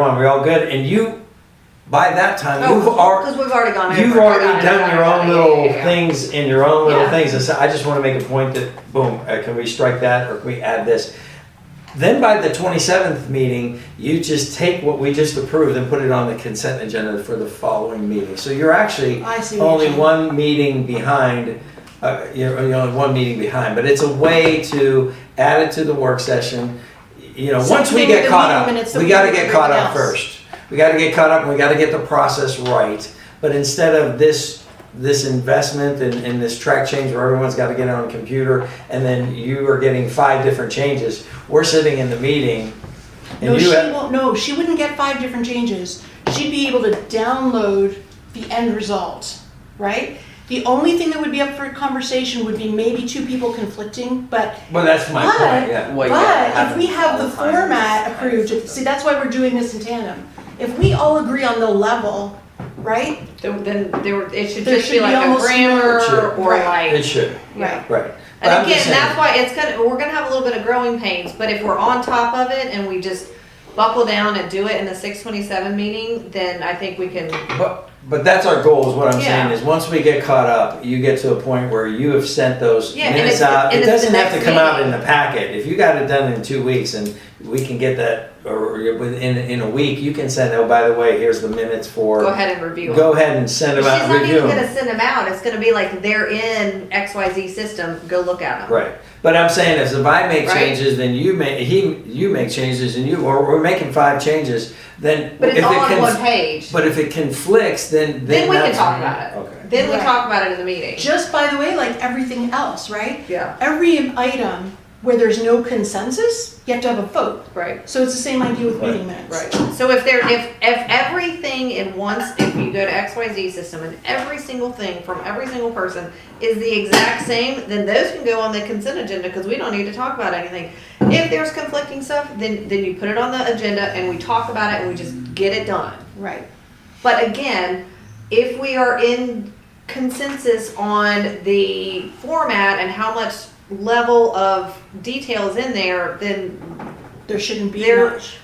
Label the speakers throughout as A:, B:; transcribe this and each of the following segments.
A: on, we're all good, and you, by that time,
B: Oh,
A: you've already,
B: Because we've already gone over.
A: you've
B: it.
A: already
B: Got it, got
A: done
B: it,
A: your
B: got
A: own
B: it.
A: little
B: Yeah, yeah,
A: things in your own little
B: Yeah.
A: things, and so I just wanna make a point that, boom, uh, can we strike that, or can we add this? Then by the twenty-seventh meeting, you just take what we just approved and put it on the consent agenda for the following meeting, so you're actually
B: yeah. I see. what you're
A: only
B: saying.
A: one meeting behind, uh, you're, you're only one meeting behind, but it's a way to add it to the work session. You know,
C: Same
A: once we
C: thing with
A: get
C: the
A: caught
C: meeting
A: up,
C: minutes that
A: we
C: we
A: gotta
C: did with
A: get caught
C: everything
A: up
C: else.
A: first. We gotta get caught up, and we gotta get the process right. But instead of this, this investment and, and this track change where everyone's gotta get on a computer, and then you are getting five different changes, we're sitting in the meeting,
C: No,
A: and you
C: she
A: have,
C: won't, no, she wouldn't get five different changes. She'd be able to download the end result, right? The only thing that would be up for conversation would be maybe two people conflicting, but,
A: well, that's my
C: But-
A: point, yeah.
D: Well, yeah,
C: but if we have the
D: happens all the time.
C: format approved, see, that's why we're doing this in tandem. If we all agree on the level, right?
B: Then, then there, were- it should
C: There
B: just
C: should
B: be
C: be
B: like a
C: almost no-
B: grammar
A: Sure.
B: or like.
A: It should,
C: Right.
A: right. But I'm
B: And
A: just
B: again,
A: saying-
B: that's why it's gonna, we're gonna have a little bit of growing pains, but if we're on top of it and we just buckle down and do it in the six twenty-seven meeting, then I think we can,
A: But, but that's our goal, is what I'm saying,
B: Yeah.
A: is once we get caught up, you get to a point where you have sent those
B: Yeah, and
A: minutes
B: it's the-
A: out.
B: and
A: It
B: it's the
A: doesn't have to
B: next
A: come out in
B: meeting.
A: the packet, if you got it done in two weeks and we can get that, or within, in a week, you can send, oh, by the way, here's the minutes for.
B: go ahead and review it.
A: Go ahead and send
B: She's
A: them out,
B: not
A: and review
B: even gonna
A: them,
B: send them out, it's gonna be like, they're in X Y Z system, go look at them.
A: right, but I'm saying, is if I make
B: Right.
A: changes, then you make, he, you make changes and you, or we're making five changes, then.
B: But it's
A: if
B: all
A: it
B: on
A: conf-
B: one page,
A: But if it conflicts, then, then.
B: then we can
A: that's-
B: talk about it,
A: Okay.
B: then we
C: Right.
B: talk about it in the meeting,
C: Just by the way, like everything else, right?
B: yeah,
C: Every item where there's no consensus, you have to have a vote.
B: right.
C: So it's the same idea with
A: Right.
C: meeting minutes.
B: Right. So if there, if, if everything in once, if you go to XYZ system and every single thing from every single person is the exact same, then those can go on the consent agenda because we don't need to talk about anything. If there's conflicting stuff, then, then you put it on the agenda and we talk about it and we just get it done.
C: Right.
B: But again, if we are in consensus on the format and how much level of detail is in there, then
C: There shouldn't be
B: There-
C: much.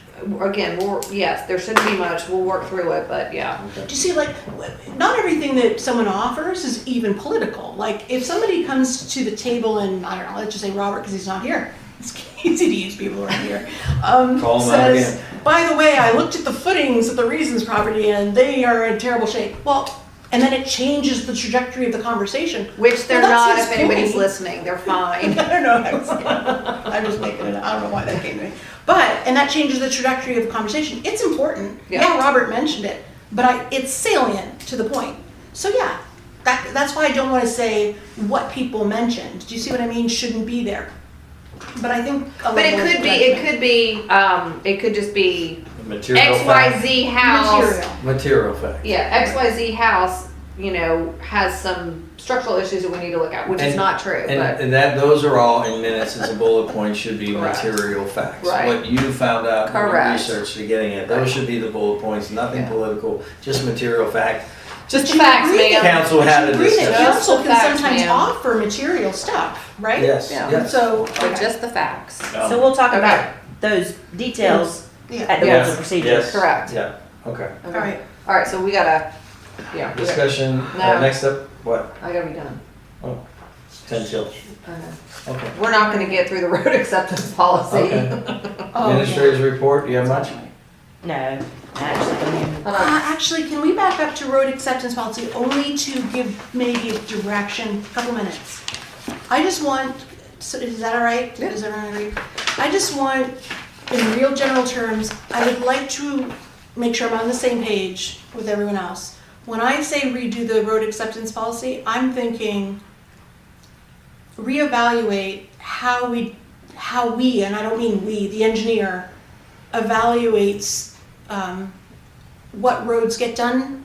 B: again, we're, yes, there shouldn't be much, we'll work through it, but yeah.
C: Do you see, like, w- not everything that someone offers is even political. Like, if somebody comes to the table and, I don't know, let's just say Robert, because he's not here. It's easy to use people around here. Um,
A: Call him out
C: says, by the way, I looked at the footings of the Reasons property and they are in terrible shape. Well, and then it changes the trajectory of the conversation.
B: Which they're
C: Well,
B: not,
C: that's
B: if
C: his
B: anybody's
C: point.
B: listening, they're fine.
C: I don't know. I was, I'm just making it. up. I don't know why that came to me. But and that changes the trajectory of the conversation. It's important.
B: Yeah.
C: Yeah, Robert mentioned it, but I, it's salient to the point. So yeah, that that's why I don't want to say what people mentioned. Do you see what I mean? Shouldn't be there. But I think. A
B: But it
C: level of
B: could be, it
C: judgment.
B: could be, um, it could just be
A: Material
B: X, Y,
A: fact.
B: Z house.
C: Material.
A: Material fact.
B: Yeah, X, Y, Z house, you know, has some structural issues that we need to look at, which is
A: And-
B: not true,
A: And,
B: but,
A: and that, those are all in minutes as a bullet point should be
B: Correct.
A: material facts.
B: Right.
A: What you found out from your
B: Correct.
A: research you're getting at, those should be the bullet points, nothing
B: Yeah.
A: political, just material fact.
B: just
C: you
B: facts,
C: agree
B: ma'am.
A: Council
C: But
A: had
C: you
A: a
C: agree that
A: discussion.
C: council
B: Just the
C: can sometimes
B: facts, ma'am.
C: offer material stuff, right?
A: Yes,
B: Yeah.
A: yes.
C: So
B: But
C: okay.
B: just the facts.
E: So we'll talk
B: Okay.
E: about those details
C: yeah.
E: at the rules
A: Yes,
E: of procedure.
A: yes,
B: Correct.
A: Yeah, okay.
C: All
B: Okay.
C: right.
B: All right, so we gotta, yeah, we gotta-
A: Discussion, uh,
B: No.
A: next up, what,
B: I gotta be done.
A: ten till,
B: Uh,
A: okay.
B: We're not gonna get through the road acceptance policy.
A: Okay.
B: Hold
C: Oh,
A: Administrators report, you have much?
E: No, actually,
B: on.
C: Uh, actually, can we back up to road acceptance policy only to give maybe a direction, a couple minutes? I just want, so is that all right?
B: Yeah.
C: Does everyone agree? I just want, in real general terms, I would like to make sure I'm on the same page with everyone else. When I say redo the road acceptance policy, I'm thinking reevaluate how we, how we, and I don't mean we, the engineer, evaluates um, what roads get done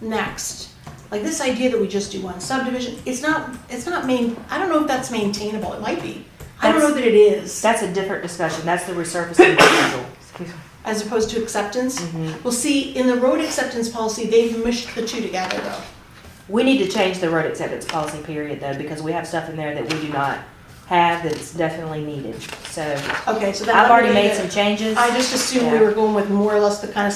C: next. Like this idea that we just do one subdivision, it's not, it's not main, I don't know if that's maintainable, it might be. I don't know that it is,
E: that's a different discussion. That's the resurfacing proposal.
C: as opposed to acceptance.
E: Mhm.
C: Well, see, in the road acceptance policy, they've mushed the two together though.
E: We need to change the road acceptance policy period though, because we have stuff in there that we do not have that's definitely needed. So
C: Okay, so that.
E: I've already made some changes.
C: I just assumed we
E: Yeah.
C: were going with more or less the kind of